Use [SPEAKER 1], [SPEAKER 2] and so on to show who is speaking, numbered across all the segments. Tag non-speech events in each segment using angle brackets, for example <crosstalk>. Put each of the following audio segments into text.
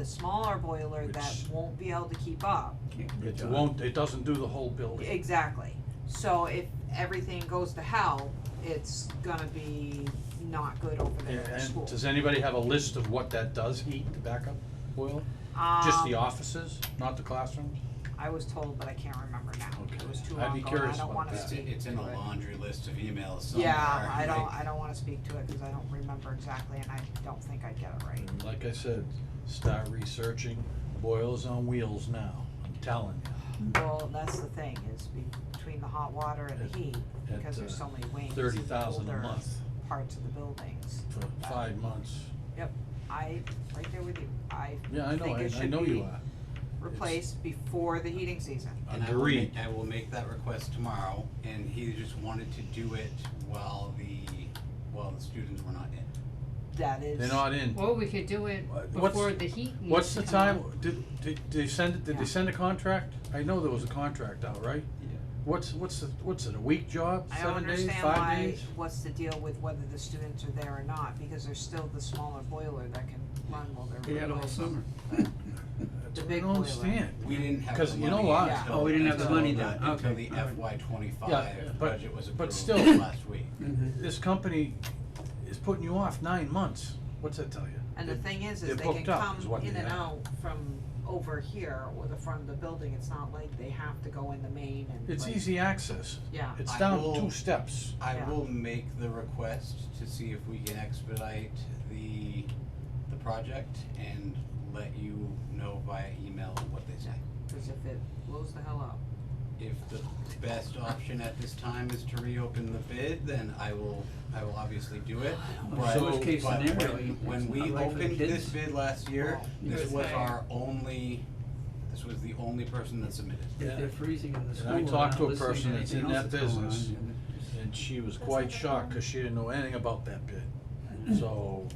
[SPEAKER 1] the smaller boiler that
[SPEAKER 2] Which-
[SPEAKER 1] won't be able to keep up.
[SPEAKER 3] Good
[SPEAKER 2] It
[SPEAKER 3] job.
[SPEAKER 2] won't, it doesn't do the whole building.
[SPEAKER 1] Exactly. So if everything goes to hell, it's gonna be not good over there at
[SPEAKER 2] And
[SPEAKER 1] school.
[SPEAKER 2] does anybody have a list of what that does heat, the backup boiler? Just the
[SPEAKER 1] Um,
[SPEAKER 2] offices, not the classrooms?
[SPEAKER 1] I was told, but I can't remember now. It
[SPEAKER 2] Okay.
[SPEAKER 1] was too
[SPEAKER 2] I'd
[SPEAKER 1] long
[SPEAKER 2] be
[SPEAKER 1] ago. and
[SPEAKER 2] curious
[SPEAKER 1] I don't
[SPEAKER 2] about
[SPEAKER 1] wanna
[SPEAKER 2] that.
[SPEAKER 4] It's,
[SPEAKER 1] speak
[SPEAKER 4] it's in
[SPEAKER 1] to
[SPEAKER 4] a
[SPEAKER 1] it.
[SPEAKER 4] laundry list of emails somewhere.
[SPEAKER 1] Yeah, I don't,
[SPEAKER 4] right?
[SPEAKER 1] I don't wanna speak to it, cause I don't remember exactly, and I don't think I'd get it right.
[SPEAKER 2] And Like I said, start researching boilers on wheels now, I'm telling you.
[SPEAKER 4] Mm-hmm.
[SPEAKER 1] Well, that's the thing, is be- between the hot water and the heat,
[SPEAKER 2] at,
[SPEAKER 1] because there's so
[SPEAKER 2] uh,
[SPEAKER 1] many wings
[SPEAKER 2] Thirty
[SPEAKER 1] in the
[SPEAKER 2] thousand a
[SPEAKER 1] older
[SPEAKER 2] month
[SPEAKER 1] parts of the buildings.
[SPEAKER 2] for five months.
[SPEAKER 1] I, right there with you, I
[SPEAKER 2] Yeah, I know,
[SPEAKER 1] think
[SPEAKER 2] I,
[SPEAKER 1] it
[SPEAKER 2] I
[SPEAKER 1] should
[SPEAKER 2] know you
[SPEAKER 1] be
[SPEAKER 2] are.
[SPEAKER 1] replaced before the heating season.
[SPEAKER 4] And I will make,
[SPEAKER 2] Agreed.
[SPEAKER 4] I will make that request tomorrow, and he just wanted to do it while the, while the students were not in.
[SPEAKER 1] That is.
[SPEAKER 2] They're not in.
[SPEAKER 5] Or we could do it
[SPEAKER 2] What's-
[SPEAKER 5] before the heat needs
[SPEAKER 2] What's
[SPEAKER 5] to
[SPEAKER 2] the
[SPEAKER 5] come
[SPEAKER 2] time,
[SPEAKER 5] on.
[SPEAKER 2] did, did, did they send, it- did
[SPEAKER 1] Yeah.
[SPEAKER 2] they send a contract? I know there was a contract out, right?
[SPEAKER 4] Yeah.
[SPEAKER 2] What's, what's, the what's it, a week job,
[SPEAKER 1] I don't
[SPEAKER 2] seven days,
[SPEAKER 1] understand
[SPEAKER 2] five
[SPEAKER 1] why,
[SPEAKER 2] days?
[SPEAKER 1] what's the deal with whether the students are there or not, because there's still the smaller boiler that can run while they're.
[SPEAKER 6] They had all
[SPEAKER 1] replaced.
[SPEAKER 6] summer.
[SPEAKER 2] That's
[SPEAKER 1] the
[SPEAKER 2] what I
[SPEAKER 1] big
[SPEAKER 2] don't
[SPEAKER 1] boiler.
[SPEAKER 2] understand.
[SPEAKER 4] We didn't have the money.
[SPEAKER 2] Because you know why?
[SPEAKER 1] Yeah.
[SPEAKER 4] until-
[SPEAKER 6] Oh, we didn't have the
[SPEAKER 4] until
[SPEAKER 6] money then.
[SPEAKER 4] the- Until
[SPEAKER 6] Okay.
[SPEAKER 4] the
[SPEAKER 6] All right.
[SPEAKER 4] FY
[SPEAKER 2] Yeah,
[SPEAKER 4] twenty-five
[SPEAKER 2] but-
[SPEAKER 4] budget was
[SPEAKER 2] but
[SPEAKER 4] approved
[SPEAKER 2] still-
[SPEAKER 4] last week.
[SPEAKER 2] This company is putting you off nine months, what's that tell you?
[SPEAKER 1] And the thing is, is
[SPEAKER 2] They're
[SPEAKER 1] they can
[SPEAKER 2] booked up, is
[SPEAKER 1] come
[SPEAKER 2] what
[SPEAKER 1] in
[SPEAKER 2] they
[SPEAKER 1] and
[SPEAKER 2] have.
[SPEAKER 1] out from over here or the front of the building, it's not like they have to go in the main and
[SPEAKER 2] It's
[SPEAKER 1] like-
[SPEAKER 2] easy access,
[SPEAKER 1] Yeah,
[SPEAKER 2] it's
[SPEAKER 4] I
[SPEAKER 2] down
[SPEAKER 4] will-
[SPEAKER 2] two steps.
[SPEAKER 4] I
[SPEAKER 1] Yeah.
[SPEAKER 4] will make the request to see if we can expedite the, the project and let you know via email what they say.
[SPEAKER 1] cause if it blows the hell up.
[SPEAKER 4] If the best option at this time is to reopen the bid, then I will, I will obviously do it. But-
[SPEAKER 2] So- Worst
[SPEAKER 6] case
[SPEAKER 4] but when-
[SPEAKER 6] scenario, you-
[SPEAKER 4] When
[SPEAKER 6] it's
[SPEAKER 4] we
[SPEAKER 6] not right for the
[SPEAKER 4] opened
[SPEAKER 6] kids.
[SPEAKER 4] this bid last year,
[SPEAKER 1] Oh.
[SPEAKER 6] You
[SPEAKER 4] this
[SPEAKER 6] guys
[SPEAKER 4] was
[SPEAKER 6] say-
[SPEAKER 4] our only, this was the only person that submitted.
[SPEAKER 2] Yeah.
[SPEAKER 6] If they're freezing in the
[SPEAKER 2] And
[SPEAKER 6] school,
[SPEAKER 2] I
[SPEAKER 6] and
[SPEAKER 2] talked
[SPEAKER 6] not
[SPEAKER 2] to a
[SPEAKER 6] listening
[SPEAKER 2] person that's
[SPEAKER 6] anything
[SPEAKER 2] in
[SPEAKER 6] else
[SPEAKER 2] that
[SPEAKER 6] that's going on,
[SPEAKER 2] business.
[SPEAKER 6] and
[SPEAKER 2] And she was quite shocked, cause she didn't know anything about that bid.
[SPEAKER 1] Mm-hmm.
[SPEAKER 2] So,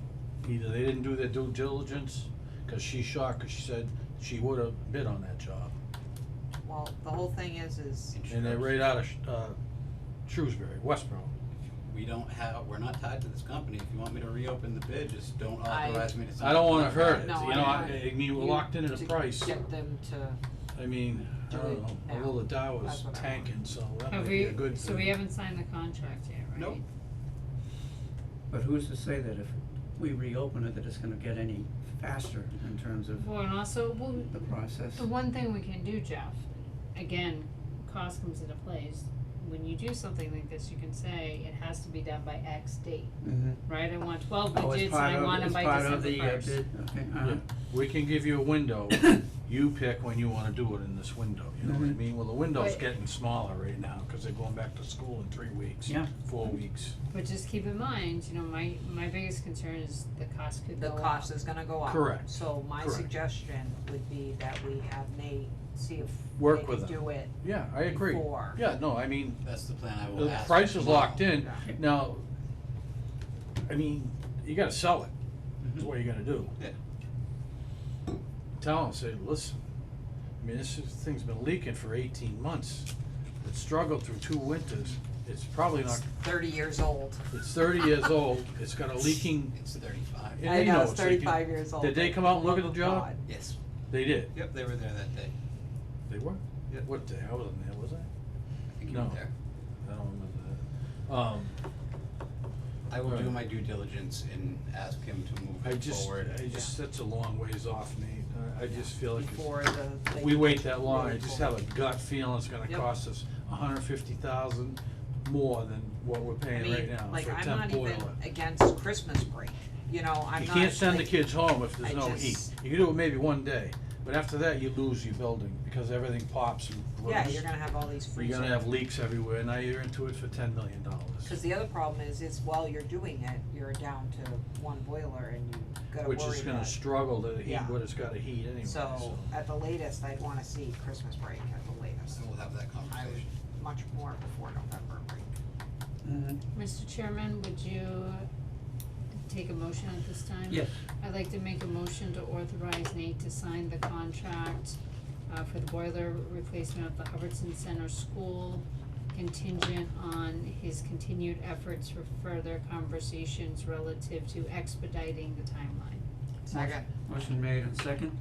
[SPEAKER 2] either they didn't do their due diligence, cause she's shocked, cause she said she would've bid on that job.
[SPEAKER 1] Well, the whole thing is, is
[SPEAKER 2] And they're right out of, Sh- uh, Shrewsbury, Westboro.
[SPEAKER 4] We don't have, we're not tied to this company. If you want me to reopen the bid, just don't
[SPEAKER 1] I-
[SPEAKER 4] authorize me to sign.
[SPEAKER 2] I don't
[SPEAKER 4] the
[SPEAKER 2] wanna hurt it,
[SPEAKER 4] contract.
[SPEAKER 1] No,
[SPEAKER 2] you
[SPEAKER 1] I
[SPEAKER 2] know,
[SPEAKER 1] know.
[SPEAKER 2] I, I mean, we're
[SPEAKER 1] You-
[SPEAKER 2] locked in at a
[SPEAKER 1] to
[SPEAKER 2] price,
[SPEAKER 1] get them to,
[SPEAKER 2] I mean, I
[SPEAKER 1] Do
[SPEAKER 2] don't
[SPEAKER 1] it
[SPEAKER 2] know,
[SPEAKER 1] now.
[SPEAKER 2] although the Dow
[SPEAKER 1] That's
[SPEAKER 2] is
[SPEAKER 1] what I want.
[SPEAKER 2] tanking, so that
[SPEAKER 5] Have
[SPEAKER 2] might be
[SPEAKER 5] we,
[SPEAKER 2] a good
[SPEAKER 5] so we
[SPEAKER 2] thing.
[SPEAKER 5] haven't signed the contract yet, right?
[SPEAKER 4] Nope.
[SPEAKER 6] But who's to say that if we reopen it, that it's gonna get any faster in terms of
[SPEAKER 5] Well, and also, well,
[SPEAKER 6] the process?
[SPEAKER 5] the one thing we can do, Jeff, again, cost comes into plays. When you do something like this, you can say it has to be done by X date,
[SPEAKER 6] Mhm.
[SPEAKER 5] right? I want twelve
[SPEAKER 6] Oh,
[SPEAKER 5] widgets
[SPEAKER 6] it's
[SPEAKER 5] and
[SPEAKER 6] part
[SPEAKER 5] I
[SPEAKER 6] of,
[SPEAKER 5] want them
[SPEAKER 6] it's
[SPEAKER 5] by
[SPEAKER 6] part of
[SPEAKER 5] December
[SPEAKER 6] the uh,
[SPEAKER 5] first.
[SPEAKER 6] bid, okay, uh-huh.
[SPEAKER 2] Yeah. We can give you a
[SPEAKER 6] <coughs>
[SPEAKER 2] window, you pick when you wanna do it in this window, you know what I
[SPEAKER 6] Mhm.
[SPEAKER 2] mean? Well, the window's
[SPEAKER 5] But-
[SPEAKER 2] getting smaller right now, cause they're going back to school in three weeks,
[SPEAKER 6] Yeah.
[SPEAKER 2] four weeks.
[SPEAKER 5] But just keep in mind, you know, my, my biggest concern is the cost could go
[SPEAKER 1] the
[SPEAKER 5] up.
[SPEAKER 1] cost is gonna go up.
[SPEAKER 2] Correct,
[SPEAKER 1] So my
[SPEAKER 2] correct.
[SPEAKER 1] suggestion would be that we have Nate see if
[SPEAKER 2] Work
[SPEAKER 1] they
[SPEAKER 2] with
[SPEAKER 1] can
[SPEAKER 2] them.
[SPEAKER 1] do it
[SPEAKER 2] Yeah, I agree.
[SPEAKER 1] before.
[SPEAKER 2] Yeah, no, I mean,
[SPEAKER 4] That's the plan I will
[SPEAKER 2] the
[SPEAKER 4] ask.
[SPEAKER 2] price is locked in,
[SPEAKER 1] Yeah.
[SPEAKER 2] now, I mean, you gotta sell it,
[SPEAKER 6] Mm-hmm.
[SPEAKER 2] is what you gotta do.
[SPEAKER 4] Yeah.
[SPEAKER 2] Tell them, say, listen, I mean, this is- thing's been leaking for eighteen months, it struggled through two winters, it's probably
[SPEAKER 1] It's
[SPEAKER 2] not,
[SPEAKER 1] thirty years old.
[SPEAKER 2] it's thirty years old, it's got a leaking
[SPEAKER 4] It's thirty-five.
[SPEAKER 2] Yeah,
[SPEAKER 1] I
[SPEAKER 2] they
[SPEAKER 1] know,
[SPEAKER 2] know,
[SPEAKER 1] it's
[SPEAKER 2] so you-
[SPEAKER 1] thirty-five years old.
[SPEAKER 2] did they come out and look at the job?
[SPEAKER 1] God.
[SPEAKER 4] Yes.
[SPEAKER 2] They did.
[SPEAKER 4] Yep, they were there that day.
[SPEAKER 2] They were?
[SPEAKER 4] Yeah.
[SPEAKER 2] What day? I wasn't there, was I?
[SPEAKER 4] I think you were
[SPEAKER 2] No.
[SPEAKER 4] there.
[SPEAKER 2] I don't remember that. Um,
[SPEAKER 4] I will do
[SPEAKER 2] Right.
[SPEAKER 4] my due diligence and ask him to move
[SPEAKER 2] I
[SPEAKER 4] it
[SPEAKER 2] just,
[SPEAKER 4] forward.
[SPEAKER 2] I just, that's a long ways off, Nate. I- I just feel like
[SPEAKER 1] Before the.
[SPEAKER 2] if
[SPEAKER 1] they
[SPEAKER 2] we
[SPEAKER 1] can
[SPEAKER 2] wait that long, I
[SPEAKER 1] move
[SPEAKER 2] just have
[SPEAKER 1] forward.
[SPEAKER 2] a gut feeling it's gonna
[SPEAKER 1] Yep.
[SPEAKER 2] cost us a hundred fifty thousand more than what we're
[SPEAKER 1] I
[SPEAKER 2] paying right
[SPEAKER 1] mean,
[SPEAKER 2] now
[SPEAKER 1] like,
[SPEAKER 2] for a
[SPEAKER 1] I'm
[SPEAKER 2] temp
[SPEAKER 1] not
[SPEAKER 2] boiler.
[SPEAKER 1] even against Christmas break, you know, I'm
[SPEAKER 2] You
[SPEAKER 1] not.
[SPEAKER 2] can't send the
[SPEAKER 1] like-
[SPEAKER 2] kids home if
[SPEAKER 1] I
[SPEAKER 2] there's no heat.
[SPEAKER 1] just-
[SPEAKER 2] You can do it maybe one day, but after that, you lose your building because everything pops and
[SPEAKER 1] Yeah,
[SPEAKER 2] grows.
[SPEAKER 1] you're gonna have all these freezers.
[SPEAKER 2] You're gonna have leaks everywhere, now you're into it for ten million dollars.
[SPEAKER 1] Cause the other problem is, is while you're doing it, you're down to one boiler and you gotta worry
[SPEAKER 2] Which
[SPEAKER 1] about.
[SPEAKER 2] is gonna struggle to heat
[SPEAKER 1] Yeah.
[SPEAKER 2] what it's gotta heat anyway,
[SPEAKER 1] So,
[SPEAKER 2] so.
[SPEAKER 1] at the latest, I'd wanna see Christmas break at the latest,
[SPEAKER 4] So we'll have that conversation.
[SPEAKER 1] much more before November break.
[SPEAKER 6] Mhm.
[SPEAKER 5] Mr. Chairman, would you take a motion at this time?
[SPEAKER 6] Yes,
[SPEAKER 5] I'd like to make a motion to authorize Nate to sign the contract uh for the boiler replacement of the Hubbardson Center School contingent on his continued efforts for further conversations relative to expediting the timeline.
[SPEAKER 1] Second.
[SPEAKER 6] Motion made and second.